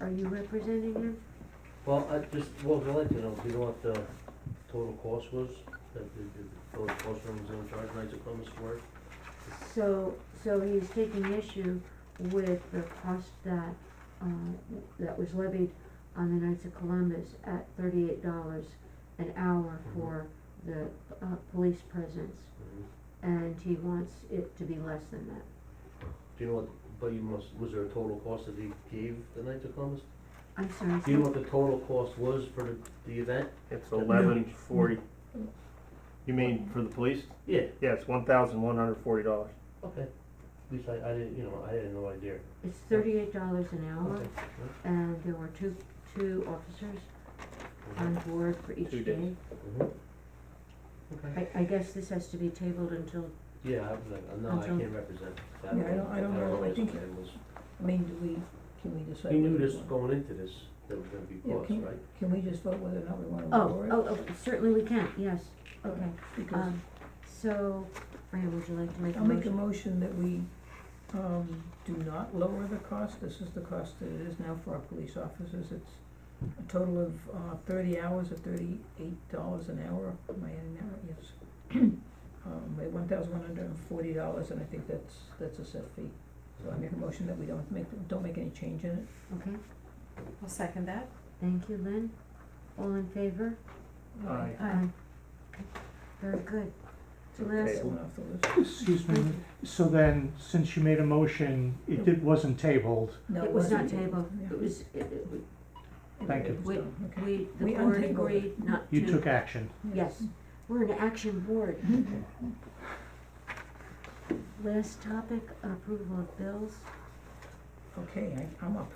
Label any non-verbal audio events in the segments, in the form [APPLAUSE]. Are you representing him? Well, I just, well, I'd like to know, do you know what the total cost was? That the, the total cost from his own charge rights of Columbus Square? So, so he's taking issue with the cost that, uh, that was levied on the Knights of Columbus at thirty-eight dollars an hour Mhm. for the, uh, police presence, Mhm. and he wants it to be less than that. Do you know what, but you must, was there a total cost that he gave the Knights of Columbus? I'm sorry, Do you know so- what the total cost was for the, the event? It's eleven forty. Mm-hmm. You mean for the police? Yeah, Yeah, it's one thousand one hundred forty dollars. okay. At least I, I didn't, you know, I had no idea. it's thirty-eight dollars an hour, Uh-huh. Okay. and there were two, two officers Uh-huh. on board for each Two day. days. Mhm. Okay. I, I guess this has to be tabled until, Mm-hmm. Yeah, I'm, like, no, I Until- can't represent that. Yeah, I don't- I don't know. I what his think- plan was. I mean, do we, can we decide? He knew whether we this want- going into this, there was gonna be Yeah, costs, can- right? Can we just vote whether or not we wanna oh, lower it? oh, oh, certainly we can, yes, okay. Because Um, so, Fran, would you like to make a I'll make a motion? motion that we, um, do not lower the cost, this is the cost that it is now for our police officers, it's a total of, uh, thirty hours at thirty-eight dollars an hour, am I adding that right? [COUGHS] yes. Um, at one thousand one hundred and forty dollars, and I think that's, that's a set fee, so I make a motion that we don't make, don't make any change in it. Okay, I'll second that. thank you, Lynn. All in favor? Aye. Aye. Very good. So Okay, last, it went off the list. Excuse me, so then, since you made a motion, it did, wasn't tabled, No, It was not wasn't. tabled. Yeah. it was, it, it, we- Thank you. It was We- done, okay. we, the We board untabled it. agreed not to. you took action. Yes, we're an action board. Mm-hmm. Last topic, approval of bills. Okay, I, I'm up.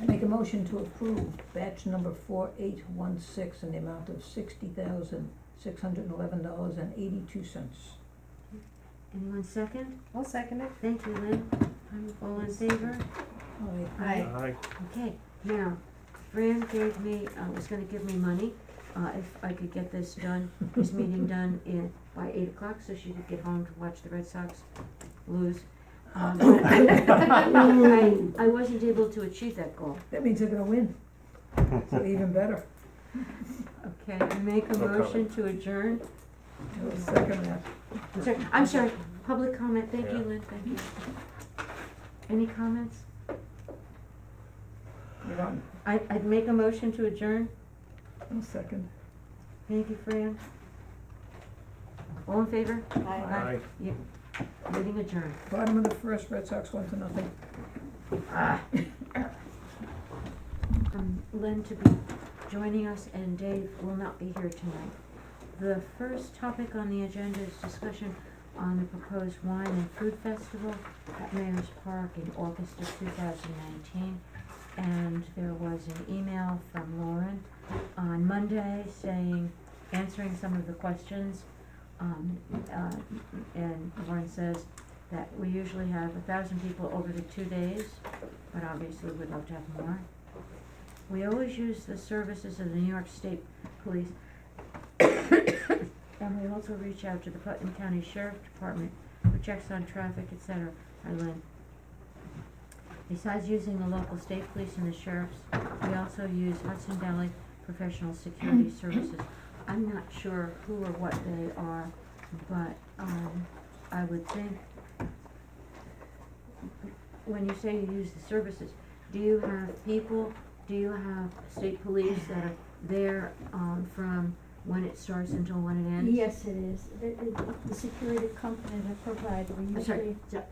I make a motion to approve batch number four eight one six in the amount of sixty thousand, six hundred and eleven dollars and eighty-two cents. Anyone second? I'll second it. Thank you, Lynn. All in favor? Aye. Aye. Okay, now, Fran gave me, uh, was gonna give me money, uh, if I could get this done, this meeting done in, by eight o'clock, so she could get home to watch the Red Sox lose. Um, [COUGHS] I, I wasn't able to achieve that goal. That means they're gonna win, so even better. Okay, I make a No comment. motion to adjourn. I'll Second that. I'm sorry, I'm sorry, public comment, thank you, Yeah. Lynn, thank you. Any comments? You're on. I, I'd make a motion to adjourn. I'll second. Thank you, Fran. All in favor? Aye. Aye. Meeting adjourned. Bottom of the first, Red Sox one to nothing. [COUGHS] um, Lynn to be joining us, and Dave will not be here tonight. The first topic on the agenda is discussion on the proposed wine and food festival at Mayor's Park in August of two thousand nineteen. And there was an email from Lauren on Monday saying, answering some of the questions. Um, uh, and Lauren says that we usually have a thousand people over the two days, but obviously we'd love to have more. We always use the services of the New York State Police. And we also reach out to the Putnam County Sheriff Department, who checks on traffic, et cetera, I learned. Besides using the local state police and the sheriffs, we also use Hudson Valley Professional Security Services. I'm not sure who or what they are, but, um, I would think, when you say you use the services, do you have people do you have state police that are there, um, from when it starts until when it ends? Yes, it is. The, the- the security company that provide, we I'm sorry, usually, so,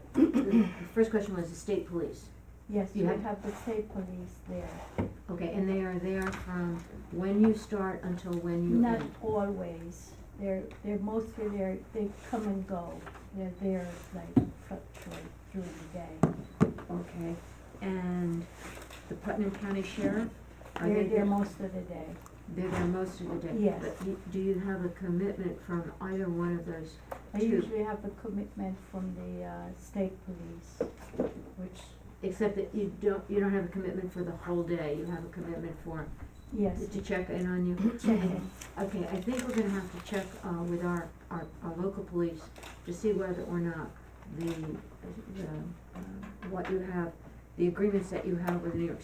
the first question was the state police. yes, we You have- have the state police there. Okay, and they are there from when you start until when you Not end? always. They're, they're mostly there, they come and go. They're there like fluctuate through the day. Okay, and the Putnam County Sheriff, are they They're there there? most of the day. They're there most of the day? Yes. But you- do you have a commitment from either one of those? I Two. usually have a commitment from the, uh, state police, which, Except that you don't, you don't have a commitment for the whole day, you have a commitment for, yes, to check in on you? check in. [COUGHS] Okay, I think we're gonna have to check, uh, with our, our, our local police to see whether or not the, the, uh, what you have, the agreements that you have with New York